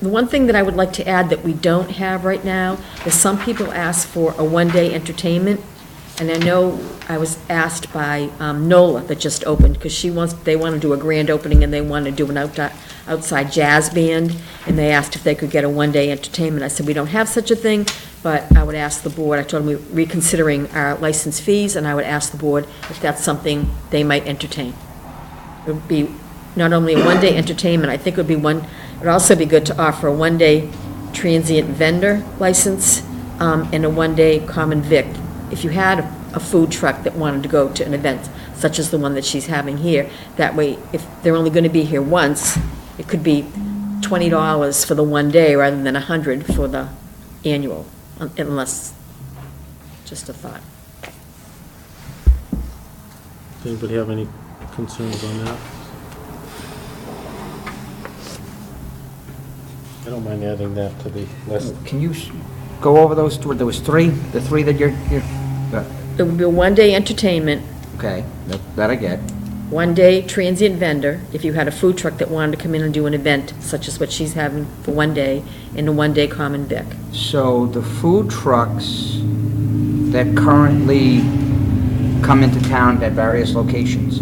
The one thing that I would like to add that we don't have right now is some people ask for a one-day entertainment, and I know I was asked by um, NOLA that just opened, because she wants, they want to do a grand opening and they want to do an outi- outside jazz band, and they asked if they could get a one-day entertainment. I said, we don't have such a thing, but I would ask the board, I told them we we're reconsidering our license fees, and I would ask the board if that's something they might entertain. It would be not only a one-day entertainment, I think it would be one, it'd also be good to offer a one-day transient vendor license um, and a one-day common vic. If you had a a food truck that wanted to go to an event such as the one that she's having here, that way, if they're only going to be here once, it could be twenty dollars for the one day rather than a hundred for the annual, un- unless, just a thought. Does anybody have any concerns on that? I don't mind adding that to the list. Can you s- go over those, two? there was three, the three that you're, you're, uh, It would be a one-day entertainment, okay, that- that I get. one-day transient vendor, if you had a food truck that wanted to come in and do an event such as what she's having for one day, and a one-day common vic. So the food trucks that currently come into town at various locations,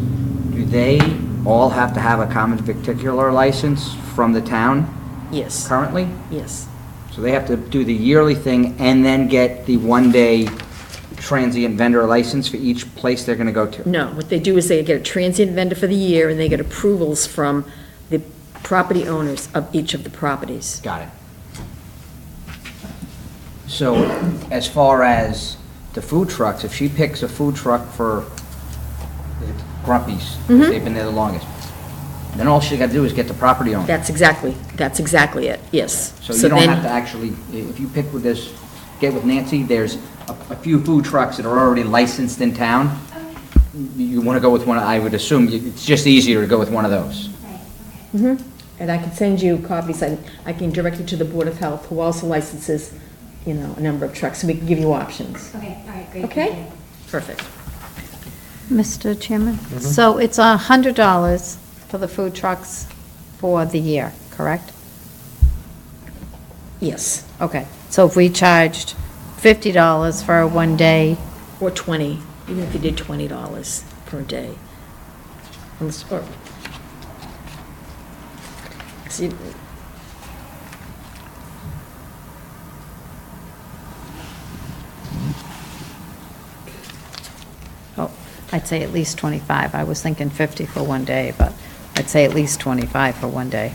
do they all have to have a common particular license from the town Yes, currently? yes, So they have to do the yearly thing and then get the one-day transient vendor license for each place they're gonna go to? no, what they do is they get a transient vendor for the year, and they get approvals from the property owners of each of the properties. Got it. So as far as the food trucks, if she picks a food truck for Grumpy's, they've been there the longest, then all she got to do is get the property owner. That's exactly, that's exactly it, yes. So you don't then- have to actually, if you pick with this, get with Nancy, there's a a few food trucks that are already licensed in town. You want to go with one, I would assume, it's just easier to go with one of those. And I can send you copies, and I can direct you to the Board of Health, who also licenses, you know, a number of trucks, and we can give you options. Okay, all right, great. thank you. Okay? Perfect. Mr. Chairman? So it's a hundred dollars for the food trucks for the year, correct? Yes, Okay, so if we charged fifty dollars for a one-day, or 20, even if you did $20 per day. Unless- or- See, oh, I'd say at least twenty-five. I was thinking fifty for one day, but I'd say at least twenty-five for one day.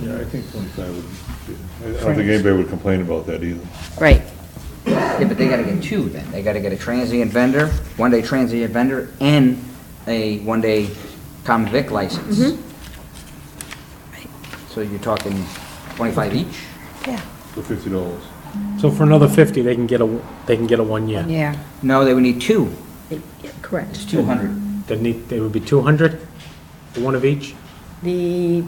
Yeah, I think twenty-five would, be- I don't think anybody would complain about that either. Right, Yeah, but they gotta get two then. They gotta get a transient vendor, one-day transient vendor, and a one-day common vic license. So you're talking twenty-five each? yeah. For fifty dollars. So for another 50, they can get a, they can get a one year. Yeah, No, they would need two. yeah, Correct. It's two hundred. They need, they would be 200, one of each? The,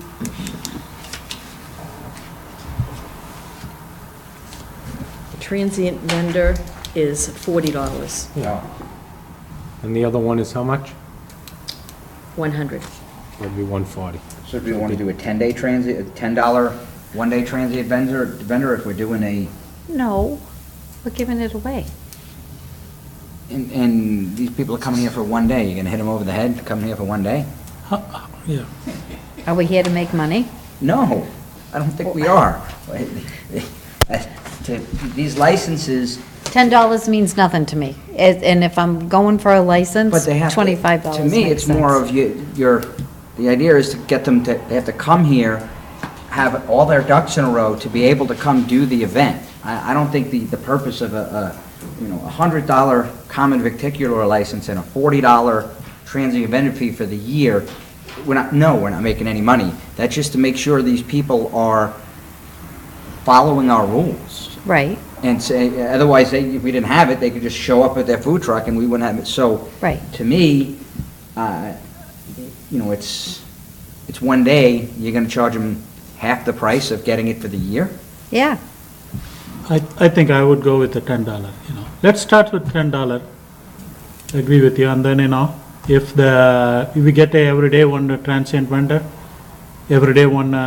transient vendor is $40, Yeah. Oh, And the other one is how much? 100. Would be 140. So do we wanna do a ten-day transient, a ten-dollar, one-day transient vendor, vendor if we're doing a, no, we're giving it away. and, and these people are coming here for one day, you're gonna hit them over the head, coming here for one day? Yeah. Are we here to make money? No, I don't think we are. These licenses, Ten dollars means nothing to me, As- and if I'm going for a But license, they have. to- twenty-five dollars To me, makes it's more sense. of you, your, the idea is to get them to, they have to come here, have all their ducks in a row to be able to come do the event. I, I don't think the, the purpose of a, a, you know, a hundred dollar common victicular license and a forty dollar transient vendor fee for the year, we're not, no, we're not making any money. That's just to make sure these people are following our rules. Right, And say, otherwise, they, if we didn't have it, they could just show up at their food truck and we wouldn't have it. So. Right. To me, uh, you know, it's, it's one day, you're gonna charge them half the price of getting it for the year? yeah. I, I think I would go with the ten dollar, you know. Let's start with ten dollar. Agree with you, and then, you know, if the, if we get a everyday one transient vendor, every day one uh,